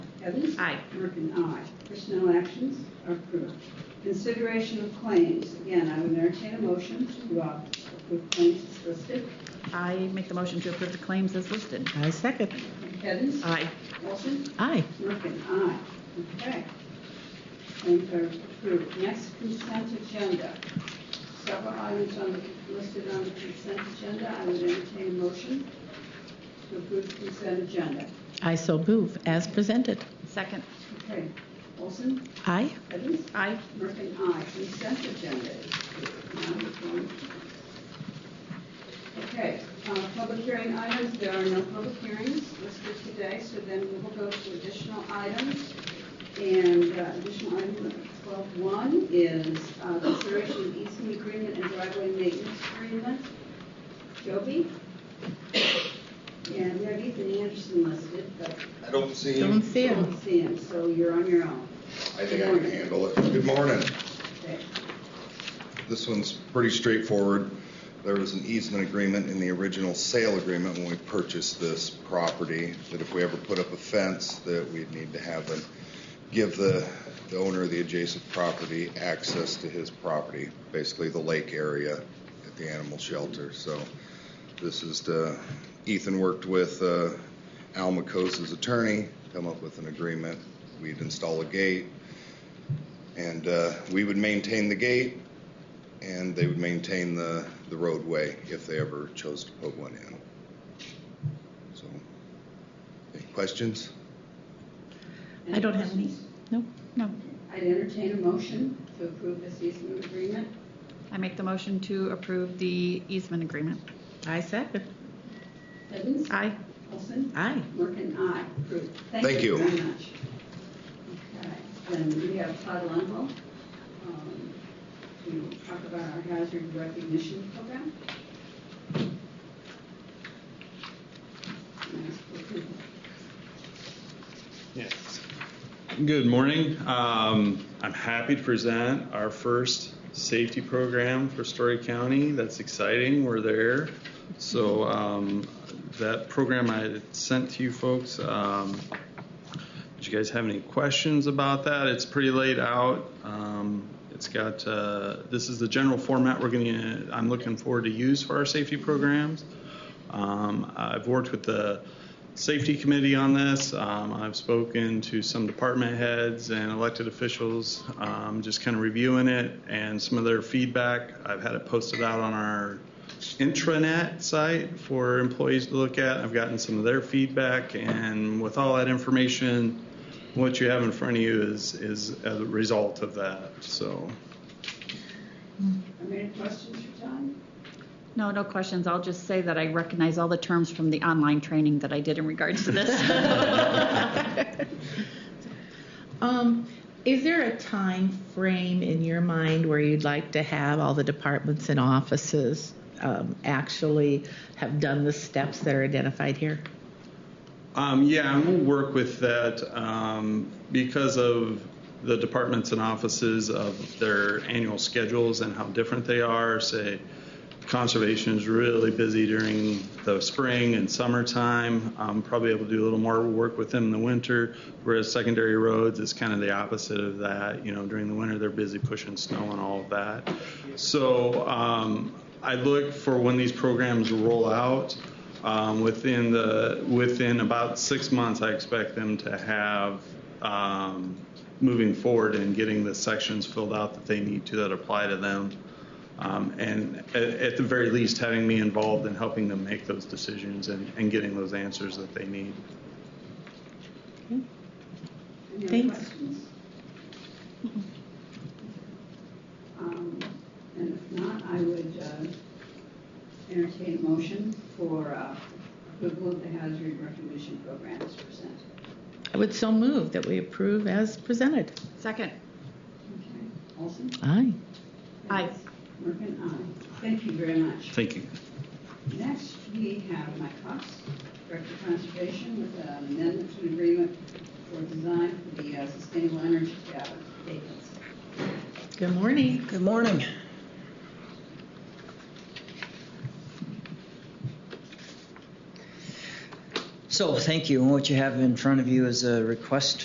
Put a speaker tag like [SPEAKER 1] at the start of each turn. [SPEAKER 1] Evans?
[SPEAKER 2] Aye.
[SPEAKER 1] Merkin, aye. Personnel actions are approved. Consideration of claims, again, I would entertain a motion to uh, approve claims as listed.
[SPEAKER 2] I make the motion to approve the claims as listed.
[SPEAKER 3] I second.
[SPEAKER 1] Evans?
[SPEAKER 2] Aye.
[SPEAKER 1] Olson?
[SPEAKER 3] Aye.
[SPEAKER 1] Merkin, aye. Okay. Claims are approved. Next, consent agenda. Several items on, the- listed on the consent agenda, I would entertain a motion to approve the consent agenda.
[SPEAKER 3] I so move as presented.
[SPEAKER 2] Second.
[SPEAKER 1] Okay, Olson?
[SPEAKER 3] Aye.
[SPEAKER 1] Evans?
[SPEAKER 2] Aye.
[SPEAKER 1] Merkin, aye. Consent agenda is approved. Now we're going to- Okay, uh, public hearing items, there are no public hearings listed today, so then we will go to additional items. And uh, additional item 12.1 is uh, consideration of easement agreement and driveway maintenance agreement. Joby? And we have Ethan Anderson listed, but
[SPEAKER 4] I don't see
[SPEAKER 3] Don't
[SPEAKER 4] him.
[SPEAKER 3] see
[SPEAKER 1] I don't
[SPEAKER 3] him.
[SPEAKER 1] see him, so you're on your own.
[SPEAKER 4] I think I can handle it. Good morning.
[SPEAKER 1] Okay.
[SPEAKER 4] This one's pretty straightforward. There was an easement agreement in the original sale agreement when we purchased this property, that if we ever put up a fence, that we'd need to have them give the, the owner of the adjacent property access to his property, basically the lake area at the animal shelter. So this is the, Ethan worked with uh, Al McCose's attorney, come up with an agreement. We'd install a gate, and uh, we would maintain the gate, and they would maintain the, the roadway if they ever chose to put one in. So, any questions?
[SPEAKER 3] I don't have any. No,
[SPEAKER 2] No.
[SPEAKER 1] I'd entertain a motion to approve this easement agreement.
[SPEAKER 2] I make the motion to approve the easement agreement.
[SPEAKER 3] I second.
[SPEAKER 1] Evans?
[SPEAKER 2] Aye.
[SPEAKER 1] Olson?
[SPEAKER 3] Aye.
[SPEAKER 1] Merkin, aye. Approved.
[SPEAKER 4] Thank you.
[SPEAKER 1] very much. Okay, then we have Todd Lenville um, to talk about our hazard recognition program. And ask for approval.
[SPEAKER 5] Yes. Good morning. Um, I'm happy to present our first safety program for Story County. That's exciting. We're there. So um, that program I sent to you folks. Um, did you guys have any questions about that? It's pretty laid out. Um, it's got uh, this is the general format we're going to. I'm looking forward to use for our safety programs. Um, I've worked with the safety committee on this. Um, I've spoken to some department heads and elected officials, um, just kind of reviewing it and some of their feedback. I've had it posted out on our intranet site for employees to look at. I've gotten some of their feedback, and with all that information, what you have in front of you is is a result of that. So.
[SPEAKER 1] Are there any questions for Todd?
[SPEAKER 2] No, no questions. I'll just say that I recognize all the terms from the online training that I did in regards to this.
[SPEAKER 3] Um, is there a time frame in your mind where you'd like to have all the departments and offices um, actually have done the steps that are identified here?
[SPEAKER 5] Um, yeah, and we'll work with that um, because of the departments and offices of their annual schedules and how different they are. Say, conservation is really busy during the spring and summertime. Um, probably able to do a little more work with them in the winter. Whereas secondary roads is kind of the opposite of that. You know, during the winter they're busy pushing snow and all of that. So um, I look for when these programs roll out. Um, within the within about six months, I expect them to have um, moving forward and getting the sections filled out that they need to that apply to them, um, and at, at the very least, having me involved in helping them make those decisions and, and getting those answers that they need.
[SPEAKER 1] Any other
[SPEAKER 3] Thanks.
[SPEAKER 1] questions? Um, And if not, I would uh, entertain a motion for uh, approval of the hazard recognition program as presented.
[SPEAKER 3] I would so move that we approve as presented.
[SPEAKER 2] Second.
[SPEAKER 1] Okay, Olson?
[SPEAKER 3] Aye.
[SPEAKER 2] Aye.
[SPEAKER 1] Merkin, aye. Thank you very much.
[SPEAKER 5] Thank you.
[SPEAKER 1] Next, we have Mike Cox, Director of Conservation, with an amendment to an agreement for design for the uh, sustainable energy cabin. David's.
[SPEAKER 3] Good morning.
[SPEAKER 6] Good morning. So, thank you. And what you have in front of you is a request